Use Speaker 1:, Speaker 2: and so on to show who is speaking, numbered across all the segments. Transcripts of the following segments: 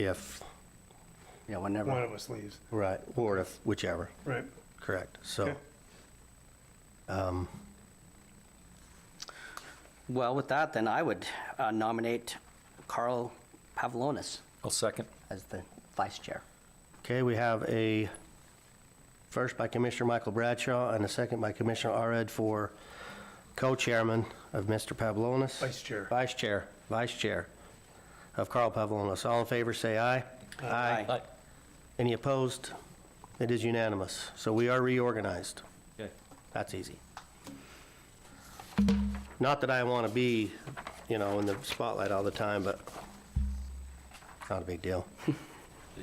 Speaker 1: if, you know,
Speaker 2: one
Speaker 1: whenever,
Speaker 2: of us leaves,
Speaker 1: right, or if, whichever,
Speaker 2: right?
Speaker 1: correct, so.
Speaker 2: Okay.
Speaker 1: um, Well, with that, then I would uh, nominate Carl Pavlonis
Speaker 3: I'll second.
Speaker 1: as the vice chair. Okay, we have a first by Commissioner Michael Bradshaw and a second by Commissioner Arad for co-chairman of Mr. Pavlonis.
Speaker 2: Vice chair.
Speaker 1: Vice chair, vice chair of Carl Pavlonis. All in favor, say aye.
Speaker 3: Aye.
Speaker 1: Any opposed? It is unanimous. So we are reorganized.
Speaker 3: Okay.
Speaker 1: That's easy. Not that I want to be, you know, in the spotlight all the time, but not a big deal.
Speaker 4: It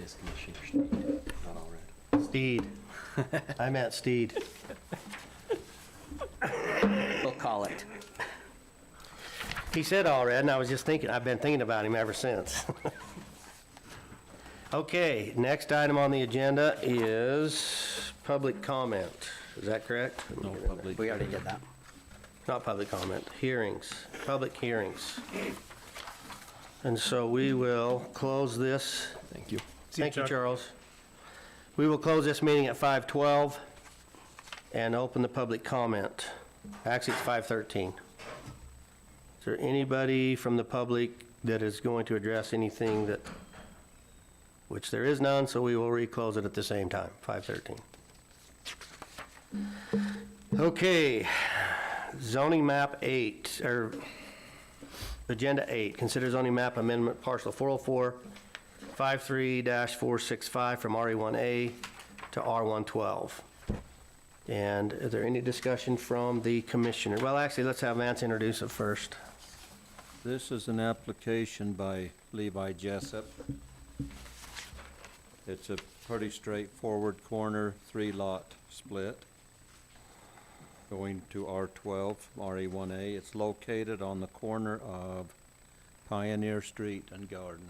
Speaker 4: is Commissioner Steed, not all red.
Speaker 1: Steed. I meant Steed.
Speaker 4: We'll call it.
Speaker 1: He said all red, and I was just thinking, I've been thinking about him ever since. Okay, next item on the agenda is public comment. Is that correct?
Speaker 4: No public.
Speaker 1: We already did that. Not public comment, hearings, public hearings. And so we will close this.
Speaker 4: Thank you.
Speaker 2: See you,
Speaker 1: Thank you,
Speaker 2: Chuck.
Speaker 1: Charles. We will close this meeting at 5:12 and open the public comment. Actually, it's 5:13. Is there anybody from the public that is going to address anything that, which there is none, so we will reclose it at the same time, 5:13. Okay, zoning map eight, or agenda eight, consider zoning map amendment parcel 404, 53-465 from RE1A to R112. And is there any discussion from the commissioner? Well, actually, let's have Vance introduce it first.
Speaker 5: This is an application by Levi Jessup. It's a pretty straightforward corner, three-lot split going to R12, RE1A. It's located on the corner of Pioneer Street and Garden.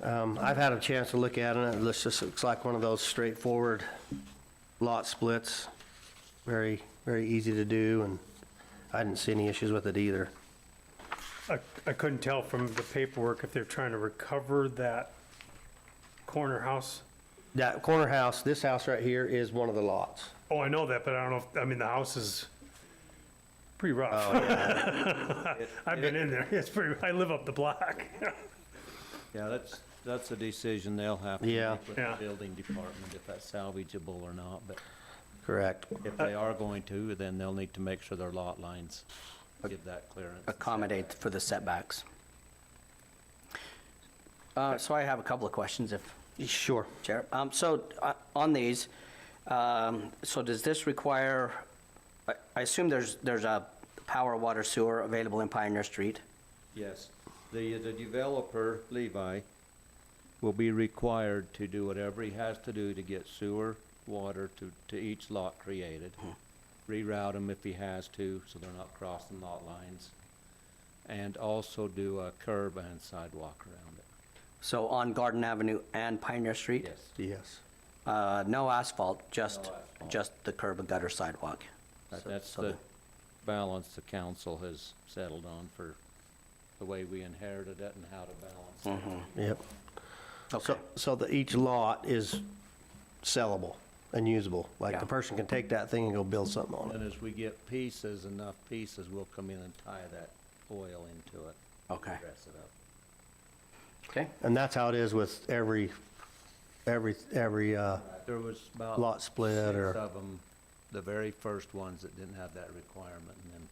Speaker 1: Um, I've had a chance to look at it, and it looks just, looks like one of those straightforward lot splits. Very, very easy to do, and I didn't see any issues with it either.
Speaker 2: I, I couldn't tell from the paperwork if they're trying to recover that corner house.
Speaker 1: That corner house, this house right here is one of the lots.
Speaker 2: Oh, I know that, but I don't know, if I mean, the house is pretty rough. I've been in there, it's pretty, I live up the block.
Speaker 5: Yeah, that's, that's a decision they'll have to
Speaker 1: Yeah.
Speaker 5: make with the
Speaker 2: Yeah.
Speaker 5: building department, if that's salvageable or not. But
Speaker 1: Correct.
Speaker 5: if they are going to, then they'll need to make sure their lot lines give that clearance. and
Speaker 4: Accommodate for the setbacks. Uh, So I have a couple of questions if,
Speaker 1: Sure.
Speaker 4: Chair. Um, So uh, on these, um, so does this require, I- I assume there's, there's a power, water, sewer available in Pioneer Street?
Speaker 5: Yes, the, the developer, Levi, will be required to do whatever he has to do to get sewer, water to, to each lot created.
Speaker 4: Hmm.
Speaker 5: Reroute them if he has to, so they're not crossing lot lines. And also do a curb and sidewalk around it.
Speaker 4: So on Garden Avenue and Pioneer Street?
Speaker 5: Yes,
Speaker 1: Yes.
Speaker 4: Uh, No asphalt, just,
Speaker 5: No asphalt.
Speaker 4: just the curb and gutter sidewalk?
Speaker 5: that-
Speaker 4: So-
Speaker 5: that's
Speaker 4: so
Speaker 5: the balance the council has settled on for the way we inherited it and how to
Speaker 4: Uh-huh.
Speaker 5: balance it.
Speaker 1: Yep.
Speaker 4: Okay,
Speaker 1: So, so that each lot is sellable and usable? Like, the
Speaker 4: Yeah.
Speaker 1: person can take that thing and go build something on it?
Speaker 5: And as we get pieces, enough pieces, we'll come in and tie that oil into it.
Speaker 4: okay,
Speaker 5: Dress it up.
Speaker 4: okay.
Speaker 1: And that's how it is with every, every, every, uh,
Speaker 5: There was about.
Speaker 1: Lot split or-
Speaker 5: Six of them, the very first ones that didn't have that requirement, and then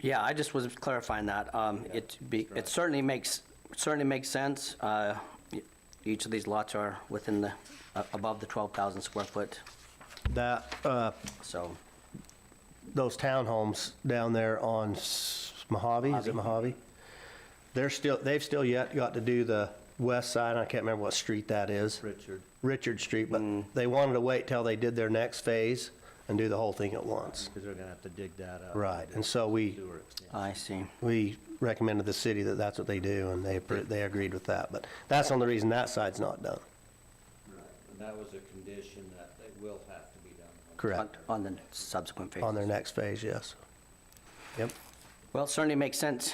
Speaker 4: Yeah, I just was clarifying that. Um, It be, it certainly makes, certainly makes sense. Uh, e- Each of these lots are within the, uh, above the 12,000 square foot,
Speaker 1: that, uh,
Speaker 4: so,
Speaker 1: those townhomes down there on S- Mojave, is it Mojave? They're still, they've still yet got to do the west side, I can't remember what street that is.
Speaker 5: Richard.
Speaker 1: Richard Street, but they wanted to wait till they did their next phase and do the whole thing at once.
Speaker 5: Because they're gonna have to dig that up.
Speaker 1: Right, and so we,
Speaker 5: Sewer extension.
Speaker 4: I see.
Speaker 1: we recommended the city that that's what they do, and they, appro- they agreed with that. But that's the only reason that side's not done,
Speaker 5: Right, And that was a condition that they will have to be done.
Speaker 1: correct,
Speaker 4: On on the subsequent phase.
Speaker 1: on their next phase, yes. Yep,
Speaker 4: Well, certainly makes sense